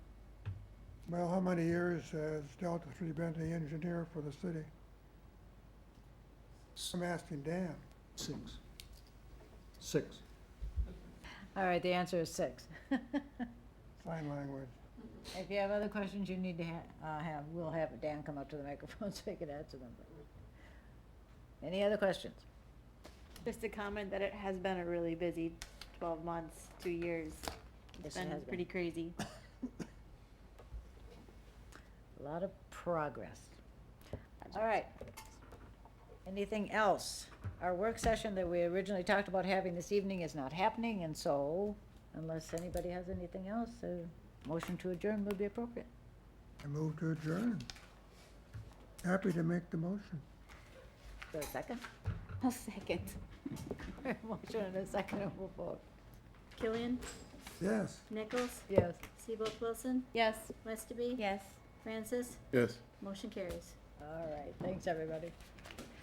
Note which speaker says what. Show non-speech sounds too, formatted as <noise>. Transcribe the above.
Speaker 1: Well, how many years has Delta Three been the engineer for the city? I'm asking Dan.
Speaker 2: Six. Six.
Speaker 3: All right, the answer is six. <laughs>
Speaker 1: Sign language.
Speaker 3: If you have other questions you need to ha- uh, have, we'll have Dan come up to the microphone <laughs> so he can answer them. Any other questions?
Speaker 4: Just a comment that it has been a really busy twelve months, two years.
Speaker 3: Yes,
Speaker 4: It's
Speaker 3: it
Speaker 4: been
Speaker 3: has been.
Speaker 4: pretty crazy. <laughs>
Speaker 3: A lot of progress. All right. Anything else? Our work session that we originally talked about having this evening is not happening, and so unless anybody has anything else, a motion to adjourn would be appropriate.
Speaker 1: I move to adjourn. Happy to make the motion.
Speaker 3: Is there a second?
Speaker 4: I'll second.
Speaker 3: <laughs> Motion and a second, and we'll vote.
Speaker 5: Killian,
Speaker 1: Yes.
Speaker 5: Nichols,
Speaker 3: Yes.
Speaker 5: Seabolt Wilson,
Speaker 4: Yes.
Speaker 5: Westerby.
Speaker 4: Yes.
Speaker 5: Francis,
Speaker 2: Yes.
Speaker 5: motion carries.
Speaker 3: All right, thanks, everybody.